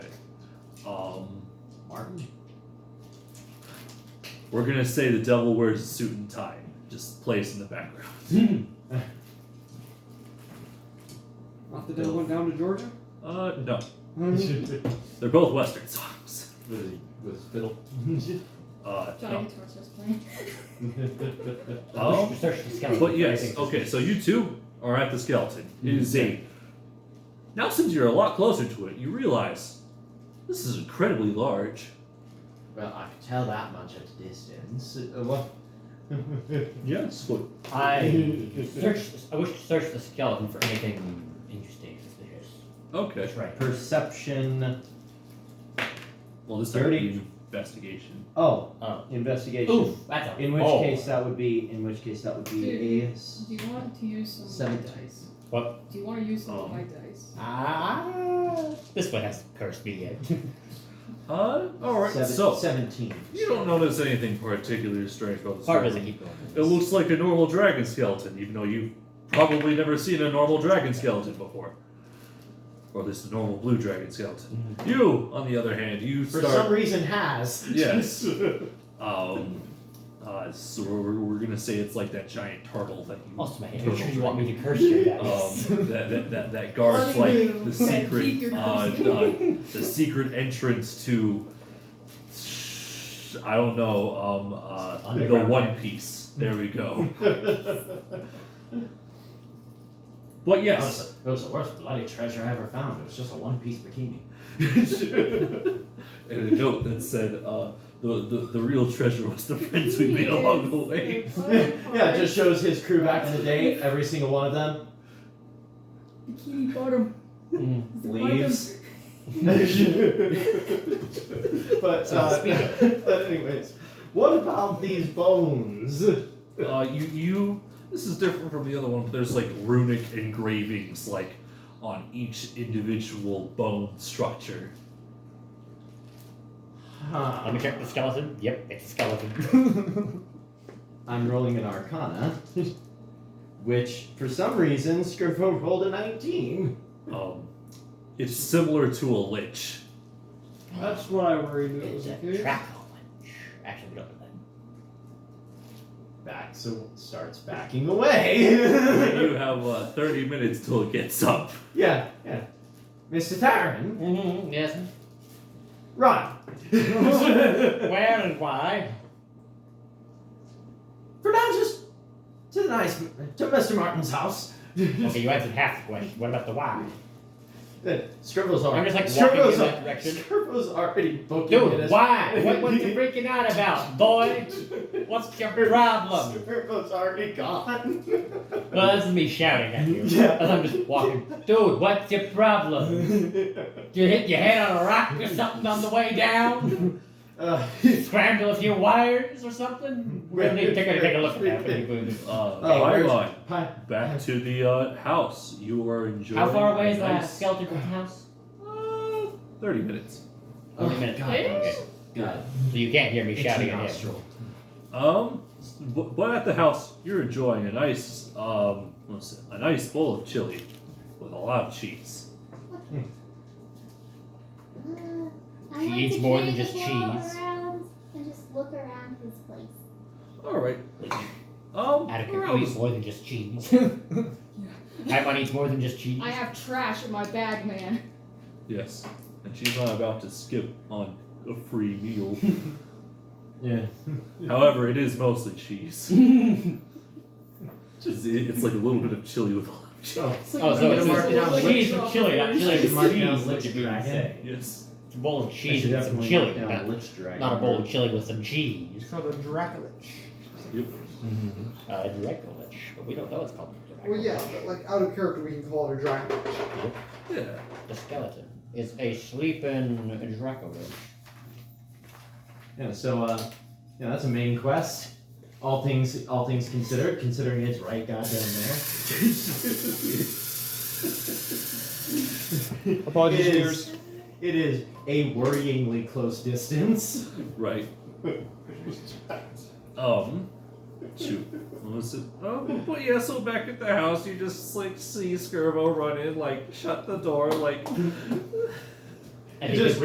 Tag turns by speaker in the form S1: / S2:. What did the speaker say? S1: um, Martin. We're gonna say the devil wears a suit and tie, just plays in the background.
S2: Off the devil went down to Georgia?
S1: Uh, no,
S2: Mhm.
S1: they're both Western songs.
S3: with, with fiddle.
S1: Uh,
S4: Johnny
S1: no.
S4: Guitar's just playing.
S1: Oh,
S5: Search the skeleton.
S1: but yes. Okay, so you two are at the skeleton. It is a. Now, since you're a lot closer to it, you realize this is incredibly large.
S5: Well, I can tell that much at a distance. Uh, well,
S1: Yes. What?
S5: I search. I wish to search the skeleton for anything interesting, suspicious.
S1: Okay.
S5: That's right. Perception.
S1: Well, this time
S3: Dirty.
S1: you investigation.
S3: oh,
S5: Oh.
S3: investigation.
S5: Oof. Oh. That's a
S3: In which
S5: roll.
S3: case that would be. In which case that would be a. s-
S4: Do you want to use some
S3: Seven.
S4: white dice?
S5: What? Oh.
S4: Do you want to use some
S1: Um,
S4: white dice?
S5: Ah. This one has cursed me yet.
S1: Uh, all right.
S3: seven-
S1: so
S3: seventeen.
S1: you don't notice anything particularly strange about this.
S5: Hard
S1: dragon.
S5: doesn't keep going.
S1: It looks like a normal dragon skeleton, even though you've probably never seen a normal dragon skeleton before. Or at least a normal blue dragon skeleton. You, on the other hand, you
S5: Mm-hmm. for
S1: start.
S5: some reason has.
S1: yes. Um, uh, so we're, we're gonna say it's like that giant turtle that you.
S5: Also, man,
S1: turtle
S5: you sure
S1: thing.
S5: you want me to curse you? That is.
S1: um, that, that, that, that guards like the secret uh, uh, the secret entrance to I don't know um, uh, the
S5: Underground
S1: One Piece. There we go. But
S5: That
S1: yes,
S5: was, the, that was the worst bloody treasure I ever found. It was just a one-piece bikini.
S1: and a note that said uh, the, the the real treasure was the friends we made along the way.
S3: yeah, it just shows his crew back in the day. Every single one of them
S4: Bikini bottom. The
S3: leaves. but
S5: So
S3: uh,
S5: speaking-
S3: but anyways, what about these bones?
S1: Uh, you you this is different from the other one. But there's like runic engravings like on each individual bone structure.
S5: Let
S3: Huh.
S5: me check the skeleton. Yep, it's a skeleton.
S3: I'm rolling an Arcana, which for some reason Scrivo rolled a 19.
S1: Um, it's similar to a lich.
S2: That's what I worried it
S5: it's
S2: was
S5: a
S2: a kid.
S5: track lunch. Actually, we don't know that.
S3: Back so starts backing away.
S1: you have uh, 30 minutes till it gets up.
S3: yeah, yeah. Mr. Taran,
S5: Mm-hmm, yes.
S3: run.
S5: Where and why?
S3: for now, just to the nice to Mr. Martin's house.
S5: Okay, you answered half the question. What about the why?
S3: Scribbles are.
S5: I'm just, like, walking
S3: Scribbles
S5: in
S3: are,
S5: that direction.
S3: Scribbles already booking it
S5: Dude,
S3: as-
S5: why? What, what you freaking out about, boy? What's your problem?
S3: Scribbles already gone.
S5: Well, that's me shouting at you.
S3: Yeah.
S5: As I'm just walking. Dude, what's your problem? You hit your head on a rock or something on the way down?
S3: uh,
S5: Scramble a few wires or something? We're gonna need to take a, take a look at that. when you-
S1: Uh,
S3: Oh, where's-
S1: Pylon,
S3: hi.
S1: back to the uh, house. You are enjoying.
S5: How far away is
S1: a
S5: that
S1: nice,
S5: skeleton from the house?
S1: Uh, 30 minutes.
S3: Oh,
S5: Wait a minute.
S3: God.
S5: Okay.
S3: God.
S5: So you can't hear me
S3: Itchy
S5: shouting at him.
S3: nostril.
S1: Um, but, but at the house, you're enjoying a nice, um, what's it, a nice bowl of chili with a lot of cheese.
S6: Mm, I like
S5: eats
S6: to
S5: more than
S6: kind of
S5: just
S6: walk
S5: cheese.
S6: around and just look around his place.
S1: All right. Um,
S5: Attica,
S1: around
S5: you
S1: this-
S5: eat more than just cheese. Everyone eats more than just cheese.
S4: I have trash in my bag, man.
S1: yes, and she's not about to skip on a free meal.
S3: Yeah.
S1: However, it is mostly cheese. It's, it's like a little bit of chili with a lot of cheese.
S3: So,
S5: Oh, so it's
S3: mark it down.
S5: just cheese with chili, not chili with
S3: Mark down
S5: cheese. What
S3: Lich
S5: you mean?
S3: Dragon.
S5: say.
S1: Yes.
S5: It's a bowl of
S3: I
S5: cheese
S3: should
S5: with some
S3: definitely
S5: chili,
S3: mark down
S5: not,
S3: Lich Dragon.
S5: not a bowl of chili with some cheese.
S2: called a Dracula.
S1: Yep.
S3: Mhm.
S5: Uh, Draco Lich, but we don't know it's called Draco
S2: Well, yeah,
S5: Lich.
S2: but like out of character, we can call it a Dracula.
S1: Yeah.
S5: The skeleton is a sleeping Draco Lich.
S3: Yeah. So, uh, yeah, that's a main quest. All things, all things considered, considering it's right goddamn there.
S2: Apologies,
S3: It is- It is a worryingly close distance.
S1: Right. Um. Shoot. What was it? Oh, but- but yeah. So back at the house, you just like see Skirbo run in, like shut the door, like
S3: It
S5: And he
S3: just
S5: was